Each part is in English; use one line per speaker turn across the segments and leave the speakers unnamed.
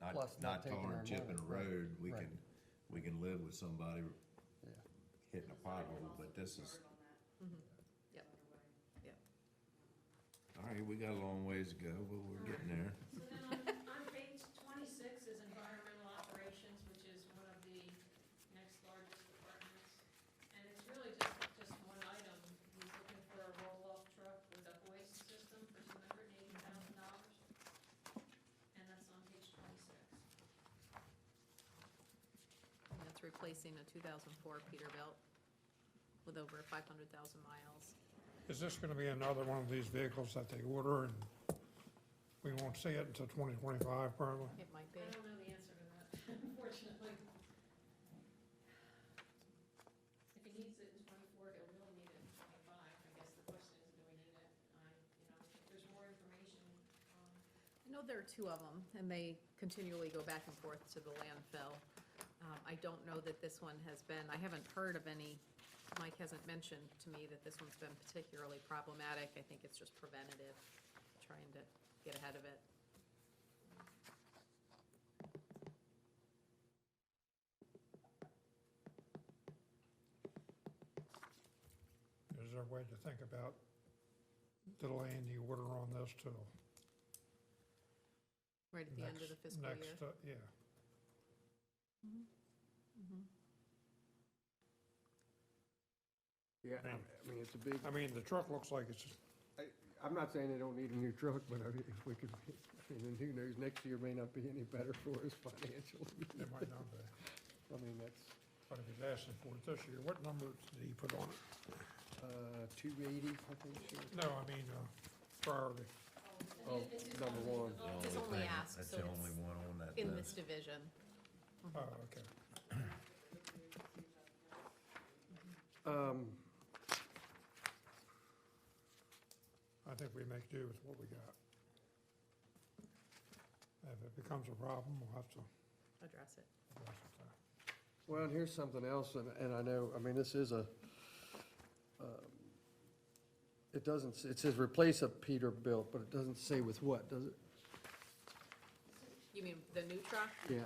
Plus
not
not taking
tar
our
and chipping a
money, right,
road, we
right.
can, we can live with somebody
Yeah.
hitting a pothole, but this is,
Yep. Yep.
all right, we got a long ways to go, but we're getting there.
So then on, on page twenty-six is environmental operations, which is one of the next largest departments. And it's really just, just one item, he's looking for a roll-off truck with a hoist system for two hundred and eighty thousand dollars. And that's on page twenty-six.
And That's replacing a 2004 Peterbilt with over 500,000 miles.
Is this gonna be another one of these vehicles that they order and we won't see it until twenty twenty-five probably?
It might be.
I don't know the answer to that, unfortunately. If he needs it in twenty-four, he'll really need it in twenty-five, I guess the question is, do we need it? I, you know, if there's more information, um,
I know there are two of them, and they continually go back and forth to the landfill. Um, I don't know that this one has been, I haven't heard of any, Mike hasn't mentioned to me that this one's been particularly problematic. I think it's just preventative, trying to get ahead of it.
Is there a way to think about delaying the order on this till
Right at the end
next,
of the fiscal year.
next, uh, yeah?
Yeah, I I mean, it's a big,
I mean, the truck looks like it's,
I'm not saying they don't need a new truck, but I mean, if we could, I mean, and who knows, next year may not be any better for us financially.
it might not be,
I mean, that's,
but if he's asking for it this year, what number did he put on it?
uh, two eighty, I think, sure.
No, I mean, uh, priority.
Oh, number one.
It's only
thing-
asked,
That's
so
the
it's
only one on that
In
list.
this division. Mm-hmm.
Oh, okay.
Um,
I think we make do with what we got. If it becomes a problem, we'll have to
Address it.
address it then.
Well, and here's something else, and, and I know, I mean, this is a, um, it doesn't, s- it says replace a Peterbilt, but it doesn't say with what, does it?
You mean the new truck?
Yeah,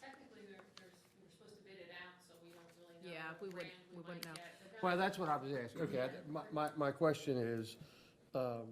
Technically, we're, there's, we we're supposed to bid it out, so we don't really know.
Yeah,
what
we wouldn't-
brand
we wouldn't
might
know.
get. But that-
well, that's what I was asking, okay, I- my, my, my question is, um,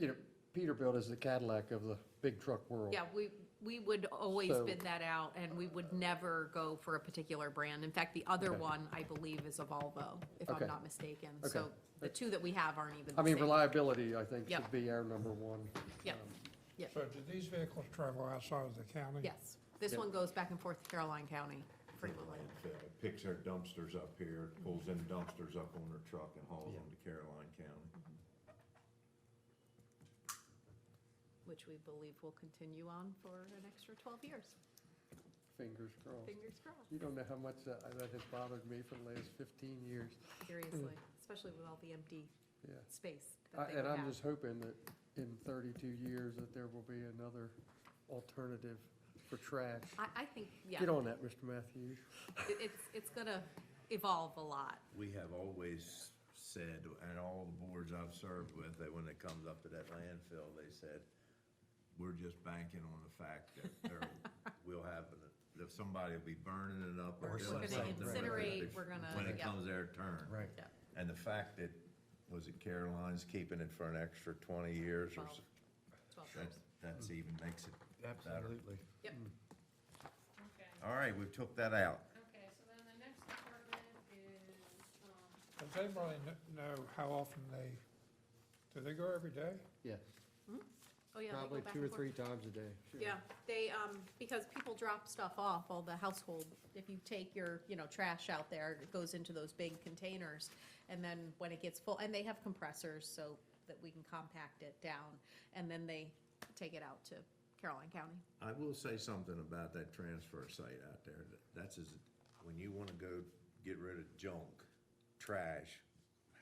you know, Peterbilt is the Cadillac of the big truck world.
Yeah, we, we would always
So-
bid that out, and we would never go for a particular brand. In fact, the other
Okay.
one, I believe, is a Volvo, if
Okay.
I'm not mistaken. So
Okay.
the two that we have aren't even
I
the
mean,
same.
reliability, I think,
Yep.
should be our number one.
Yep.
um,
So do these vehicles travel outside of the county?
Yes, this
Yep.
one goes back and forth to Caroline County frequently.
It Picks their dumpsters up here, pulls in dumpsters up on their truck and hauls them to Caroline County.
Which we believe will continue on for an extra twelve years,
Fingers crossed.
fingers crossed,
You don't know how much that, that has bothered me for the last fifteen years,
seriously, especially with all the empty
yeah.
space
I-
that they
And
would
I'm
have.
just hoping that in thirty-two years that there will be another alternative for trash.
I, I think, yeah,
Get on that, Mr. Matthews.
it- it's, it's gonna evolve a lot.
We have always said, and all the boards I've served with, that when it comes up to that landfill, they said, we're just banking on the fact that there will have, that somebody will be burning it up or
We're
doing
gonna
something. with it
incinerate,
bef-
we're gonna-
When it
yeah.
comes their turn.
Right.
Yep.
And the fact that, was it Caroline's keeping it for an extra twenty years or
Twelve.
so?
Twelve
That,
years.
that's even makes it better.
Absolutely.
Yep.
Okay,
All right, we took that out.
okay, so then the next department is, um,
Does anybody kn- know how often they, do they go every day?
Yeah,
Oh, yeah, they go
probably
back
two
and
or
forth.
three times a day. Sure.
Yeah, they, um, because people drop stuff off, all the household, if you take your, you know, trash out there, it goes into those big containers. And then when it gets full, and they have compressors so that we can compact it down, and then they take it out to Caroline County.
I will say something about that transfer site out there. That- That's as, when you wanna go get rid of junk, trash,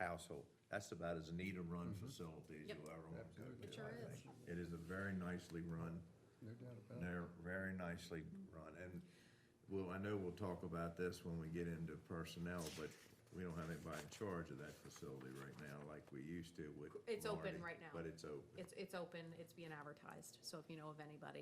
household, that's about as neat a run facility as
Yep.
you'll ever wanna go to.
It sure
I
is.
think. It is a very nicely run,
No doubt about it.
they're very nicely run, and well, I know we'll talk about this when we get into personnel, but we don't have anybody in charge of that facility right now like we used to with
It's open
Marty,
right now.
But it's open.
It's, it's open, it's being advertised, so if you know of anybody,